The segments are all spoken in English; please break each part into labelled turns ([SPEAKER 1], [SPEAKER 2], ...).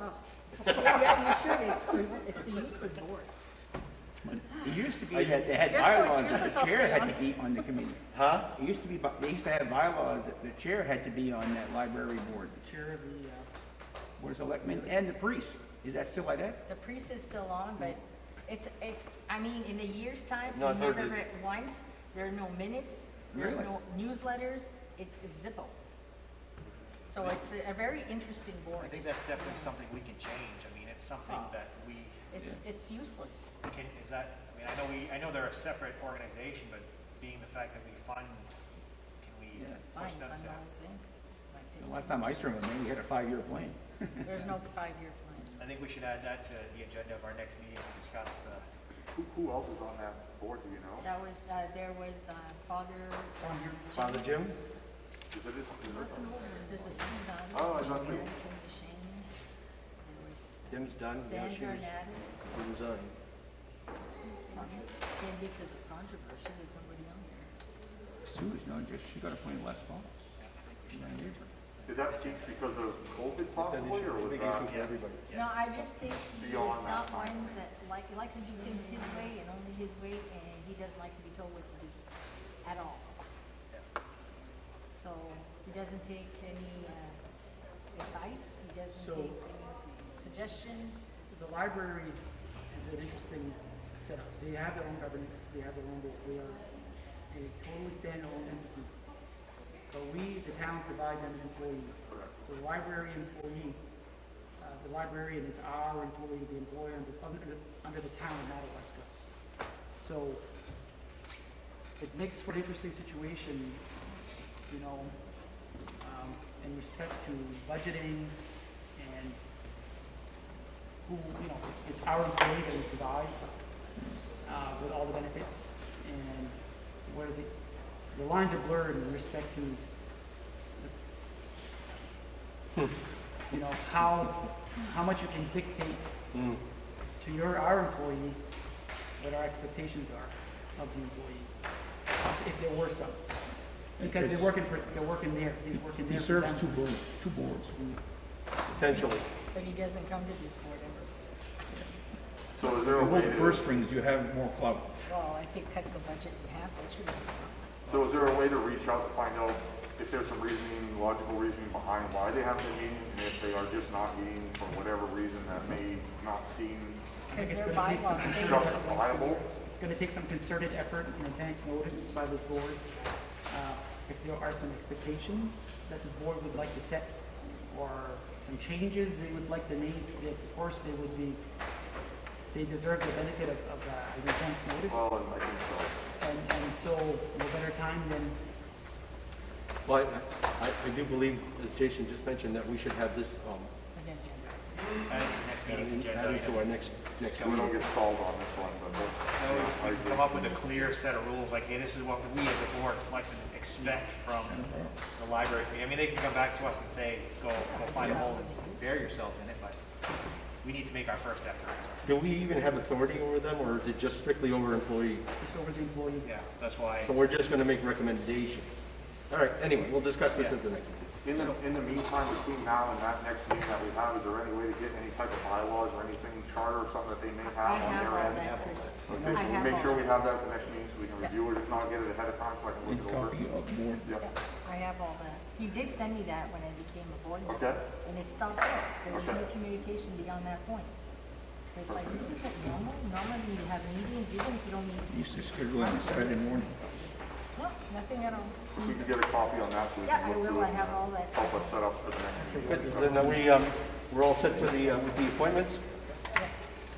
[SPEAKER 1] Oh. Yeah, you should, it's, it's the useless board.
[SPEAKER 2] It used to be that they had
[SPEAKER 1] You're so
[SPEAKER 2] bylaws that
[SPEAKER 1] useless,
[SPEAKER 2] the
[SPEAKER 1] I'll
[SPEAKER 2] chair
[SPEAKER 1] stay
[SPEAKER 2] had
[SPEAKER 1] on.
[SPEAKER 2] to be on the committee.
[SPEAKER 3] Huh?
[SPEAKER 2] It used to be, by- they used to have bylaws that the chair had to be on that library board, the chair of the, uh, Board of Selectmen and the priest. Is that still like that?
[SPEAKER 1] The priest is still on, but it's, it's, I mean, in a year's time,
[SPEAKER 3] No,
[SPEAKER 1] we
[SPEAKER 3] I've heard
[SPEAKER 1] never
[SPEAKER 3] it.
[SPEAKER 1] read once, there are no minutes, there's
[SPEAKER 2] Really?
[SPEAKER 1] no newsletters, it's Zippo. So it's a- a very interesting board.
[SPEAKER 4] I think that's definitely something we can change. I mean, it's something
[SPEAKER 1] Oh.
[SPEAKER 4] that we
[SPEAKER 1] It's, it's useless.
[SPEAKER 4] can, is that, I mean, I know we, I know they're a separate organization, but being the fact that we fund, can we
[SPEAKER 2] Yeah.
[SPEAKER 4] push
[SPEAKER 1] Fine,
[SPEAKER 4] them
[SPEAKER 1] fun
[SPEAKER 4] to?
[SPEAKER 1] dollars in, my
[SPEAKER 2] The
[SPEAKER 1] opinion.
[SPEAKER 2] last time I served with them, we had a five-year plan.
[SPEAKER 1] There's no five-year plan.
[SPEAKER 4] I think we should add that to the agenda of our next meeting and discuss the,
[SPEAKER 5] Who, who else is on that board, do you know?
[SPEAKER 1] That was, uh, there was, uh, Father. um,
[SPEAKER 3] Father Jim?
[SPEAKER 5] Is it, is it?
[SPEAKER 1] There's a student on.
[SPEAKER 5] Oh, I
[SPEAKER 1] Shane
[SPEAKER 5] must be-
[SPEAKER 1] Came to Shane. There was
[SPEAKER 3] Jim's done, you know, she uh,
[SPEAKER 1] Sandra
[SPEAKER 3] was,
[SPEAKER 1] Nadler.
[SPEAKER 3] she was on.
[SPEAKER 1] And because of controversy, there's nobody on there.
[SPEAKER 2] Sue's, no, just, she got appointed last fall. She's not here.
[SPEAKER 5] Did that change because of COVID possibly, or was that?
[SPEAKER 1] No, I just think he's
[SPEAKER 5] Beyond
[SPEAKER 1] not
[SPEAKER 5] that.
[SPEAKER 1] one that like, he likes to do things his way and only his way, and he doesn't like to be told what to do at all. So he doesn't take any uh, advice, he doesn't
[SPEAKER 6] So-
[SPEAKER 1] take any s- suggestions.
[SPEAKER 6] The library is an interesting setup. They have their own governance, they have their own board, they are a totally standalone entity. But we, the town, provide them an employee. So the library employee, uh, the librarian is our employee, the employer under, under, under the town of Madawaska. So it makes for an interesting situation, you know, um, in respect to budgeting and who, you know, it's our employee that we provide, uh, with all the benefits, and where the, the lines are blurred in respect to, the- you know, how, how much you can dictate to your, our employee, what our expectations are of the employee, if there were some. Because they're working for, they're working there, he's working
[SPEAKER 7] He
[SPEAKER 6] there for
[SPEAKER 7] serves
[SPEAKER 6] them.
[SPEAKER 7] two boards, two boards.
[SPEAKER 3] Essentially.
[SPEAKER 1] But he doesn't come to this board ever.
[SPEAKER 5] So is there a
[SPEAKER 7] You
[SPEAKER 5] way
[SPEAKER 7] hold the purse
[SPEAKER 5] to,
[SPEAKER 7] strings, you have more clout.
[SPEAKER 1] Well, I think cut the budget in half, that should be.
[SPEAKER 5] so is there a way to reach out to find out if there's some reasoning, logical reasoning behind why they haven't been meeting? And if they are just not meeting for whatever reason that may not seem
[SPEAKER 1] Because
[SPEAKER 6] it's
[SPEAKER 1] their
[SPEAKER 6] gonna take some
[SPEAKER 1] bylaws say that.
[SPEAKER 5] justifiable?
[SPEAKER 6] It's going to take some concerted effort and advance notice by this board. Uh, If there are some expectations that this board would like to set or some changes they would like to make, then of course they would be, they deserve the benefit of, of uh, an advance notice.
[SPEAKER 5] Well, I think so.
[SPEAKER 6] And, and so no better time than,
[SPEAKER 3] Well, I, I- I do believe, as Jason just mentioned, that we should have this, um,
[SPEAKER 4] add it to the next meeting's agenda.
[SPEAKER 3] added
[SPEAKER 4] item.
[SPEAKER 3] to our next, next
[SPEAKER 5] We
[SPEAKER 3] meeting.
[SPEAKER 5] don't get stalled on this one, but that's-
[SPEAKER 4] That way We can come up with a clear set of rules, like, hey, this is what we as a board of selectmen expect from the library. committee. I mean, they can come back to us and say, go, go find a hole and bury yourself in it, but we need to make our first effort.
[SPEAKER 3] Do we even have authority over them, or is it just strictly over employee?
[SPEAKER 6] just over the employee.
[SPEAKER 4] Yeah, that's why.
[SPEAKER 3] So we're just gonna make recommendations? All right, anyway, we'll discuss this at the next.
[SPEAKER 5] In the, in the meantime, between now and that next meeting that we have, is there any way to get any type of bylaws or anything, charter or something that they may
[SPEAKER 1] I
[SPEAKER 5] have
[SPEAKER 1] have
[SPEAKER 5] on their
[SPEAKER 1] all
[SPEAKER 5] end?
[SPEAKER 1] that, Chris.
[SPEAKER 5] Okay,
[SPEAKER 1] I
[SPEAKER 5] so
[SPEAKER 1] have
[SPEAKER 5] we'll make
[SPEAKER 1] all
[SPEAKER 5] sure
[SPEAKER 1] that.
[SPEAKER 5] we have that for next meeting, so we can review it, if not, get it ahead of time, so I can
[SPEAKER 7] And
[SPEAKER 5] look it over.
[SPEAKER 7] copy of board.
[SPEAKER 5] Yep,
[SPEAKER 1] I have all that. You did send me that when I became a board member.
[SPEAKER 5] okay,
[SPEAKER 1] And it stopped there. There was no
[SPEAKER 5] Okay.
[SPEAKER 1] communication beyond that point. It's like, this isn't normal. Normally you have meetings even if you don't need,
[SPEAKER 7] Used to schedule it on Saturday morning.
[SPEAKER 1] no, nothing at all.
[SPEAKER 5] if we can get a copy on that, so we
[SPEAKER 1] Yeah,
[SPEAKER 5] can
[SPEAKER 1] I
[SPEAKER 5] look
[SPEAKER 1] will.
[SPEAKER 5] through it.
[SPEAKER 1] I have
[SPEAKER 5] and uh,
[SPEAKER 1] all that.
[SPEAKER 5] Help us set up for the next
[SPEAKER 4] Good.
[SPEAKER 5] meeting. So
[SPEAKER 4] Then are we, um, we're all set for the, uh, with the appointments?
[SPEAKER 1] Yes.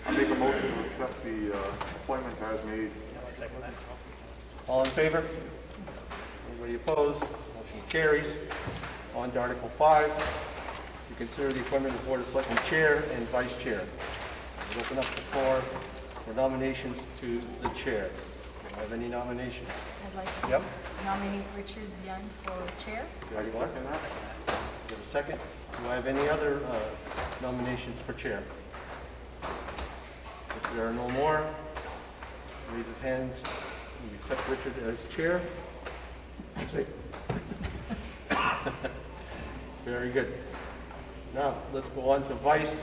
[SPEAKER 5] I make a motion to accept the uh, appointments as made.
[SPEAKER 4] All in favor? Anybody opposed? Motion carries. On to Article 5, to consider the appointment of Board of Selectmen Chair and Vice Chair. We'll Open up the floor for nominations to the Chair. Do you have any nominations?
[SPEAKER 1] I'd like to
[SPEAKER 4] Yep.
[SPEAKER 1] nominate Richard Zion for chair.
[SPEAKER 5] Did I second that?
[SPEAKER 4] Do you have a second? Do I have any other uh, nominations for Chair? If there are no more, raise of hands, we accept Richard as Chair. Very good. Now, let's go on to Vice